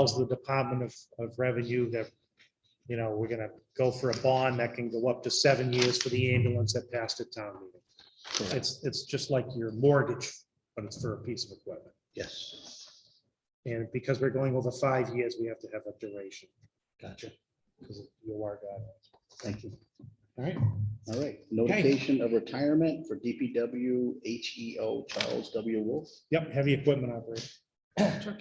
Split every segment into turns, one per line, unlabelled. tells the Department of, of Revenue that, you know, we're gonna go for a bond that can go up to seven years for the ambulance that passed a town meeting. It's, it's just like your mortgage, but it's for a piece of equipment.
Yes,
And because we're going over five years, we have to have a duration
gotcha.
because of your guidelines.
Thank you.
All right.
All right. Notification of retirement for DPW HEO E Charles W. Wolf.
Yep, heavy equipment operator.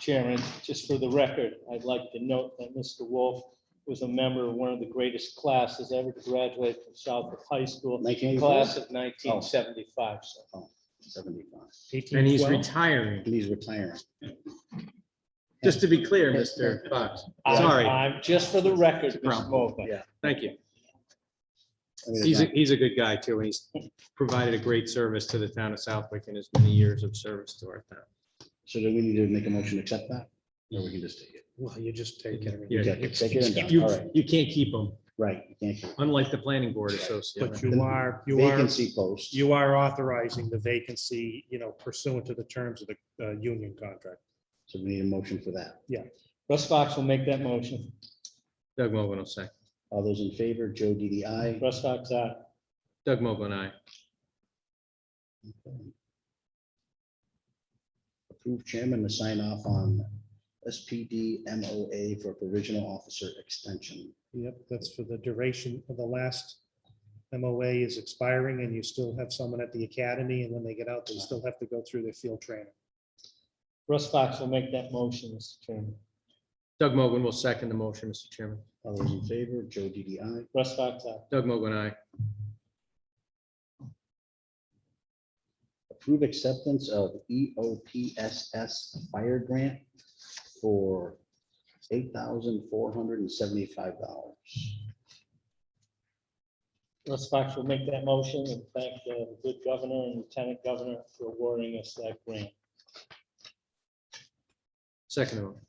Chairman, just for the record, I'd like to note that Mr. Wolf was a member of one of the greatest classes ever to graduate from Southwick High School,
1985.
class of 1975. So
And he's
1812.
retiring.
And he's retiring.
Just to be clear, Mr. Fox. Oh. Sorry.
I'm, I'm- just for the record,
Well,
Mr. Mogul.
yeah.
Thank you.
I mean, it's
He's, a
not-
he's a good guy too. and He's provided a great service to the town of Southwick in his many years of service to our town.
So do we need to make a motion to accept that? Or we can just take it?
Well, you just take it.
Yeah.
Okay, Take it and done.
You,
All right,
you can't keep him,
right. you can't keep it.
unlike the planning board associate.
But you are, you are,
Vacancy post.
you are authorizing the vacancy, you know, pursuant to the terms of the uh, union contract.
So we need a motion for that.
Russ Fox will make that motion.
Doug Mogul will second.
All those in favor, Joe DDI.
Russ Fox, uh, aye.
Doug Mogul and I.
Approve chairman to sign off on SPD MOA for provisional officer extension.
Yep, that's for the duration of the last MOA is expiring and you still have someone at the academy and when they get out, they still have to go through their field training.
Russ Fox will make that motion, Mr. Chairman.
Doug Mogul will second the motion, Mr. Chairman.
All those in favor, Joe DDI.
Russ Fox, uh, aye.
Doug Mogul and I.
Approve acceptance of E EOPSS fire grant for eight thousand four hundred and seventy-five dollars.
Russ Fox will make that motion and thank the good governor and lieutenant governor for awarding us that grant.
Second the motion.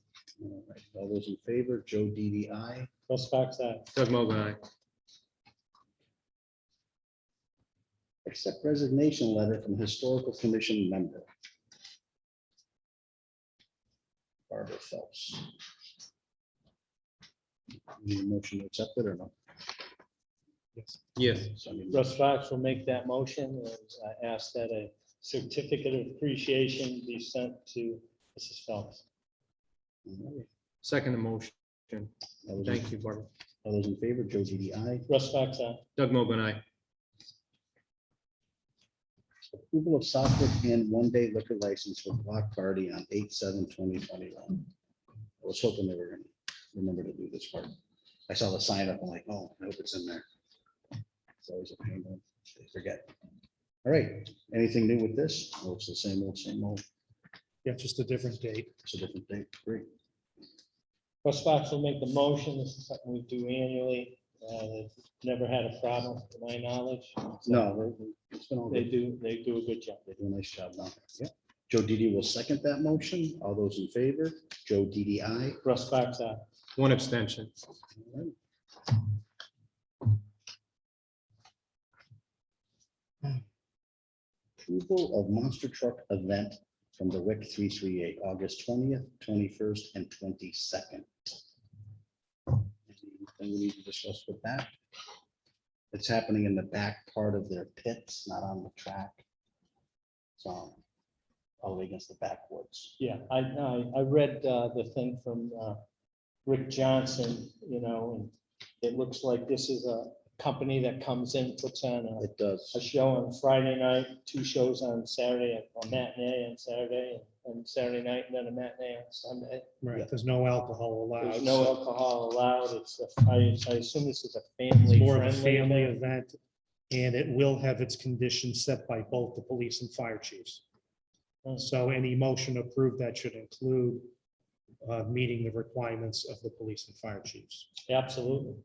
All those in favor, Joe DDI.
Russ Fox, uh, aye.
Doug Mogul and I.
Accept resignation letter from historical commission member. Barbara Phelps. Need a motion to accept it or no?
Yes.
Yes.
So I need-
Russ Fox will make that motion. and I ask that a certificate of appreciation be sent to Mrs. Phelps.
Second the motion.
All those in-
Thank you, Barbara.
All those in favor, Joe DDI.
Russ Fox, uh, aye.
Doug Mogul and I.
Approval of Southwick Inn one-day liquor license for block party on eight seven twenty twenty-one. I was hoping they were gonna remember to do this part. I saw the sign up, I'm like, oh, I hope it's in there. It's always a pain when they forget. All right, anything new with this? Oh, it's the same old, same old,
Yeah, just a different date.
it's a different date, great.
Russ Fox will make the motion. This is something we do annually. Uh, they've Never had a problem, to my knowledge.
No, they- they- it's been all
They
good.
do, they do a good job.
They do a nice job now. Yeah. Joe Didi will second that motion. All those in favor, Joe Didi, aye.
Russ Fox, uh, aye.
One abstention.
All right. Approval of monster truck event from the WIC three three eight, August twentieth, twenty-first, and twenty-second. Anything we need to discuss with that? It's happening in the back part of their pits, not on the track. So, all the way against the backwoods.
Yeah, I, I, I read uh, the thing from uh, Rick Johnson, you know, and it looks like this is a company that comes in, puts on a
It does.
a show on Friday night, two shows on Saturday, a matinee on Saturday and Saturday night, and then a matinee on Sunday.
Right, there's no alcohol allowed.
There's no
so
alcohol allowed. It's, a- I, I assume this is a family
It's more of a family
friendly. event.
event and it will have its conditions set by both the police and fire chiefs.
Hmm.
So any motion approved that should include uh, meeting the requirements of the police and fire chiefs.
Absolutely.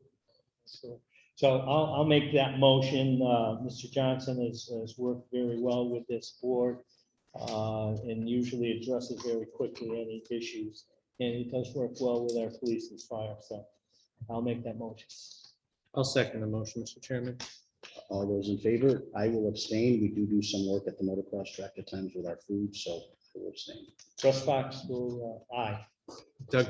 So so I'll, I'll make that motion. Uh, Mr. Johnson has, has worked very well with this board uh, and usually addresses very quickly any issues. And he does work well with our police and fire, so I'll make that motion.
I'll second the motion, Mr. Chairman.
All those in favor, I will abstain. We do do some work at the motocross track at times with our food, so I will abstain.
Russ Fox will, uh, aye.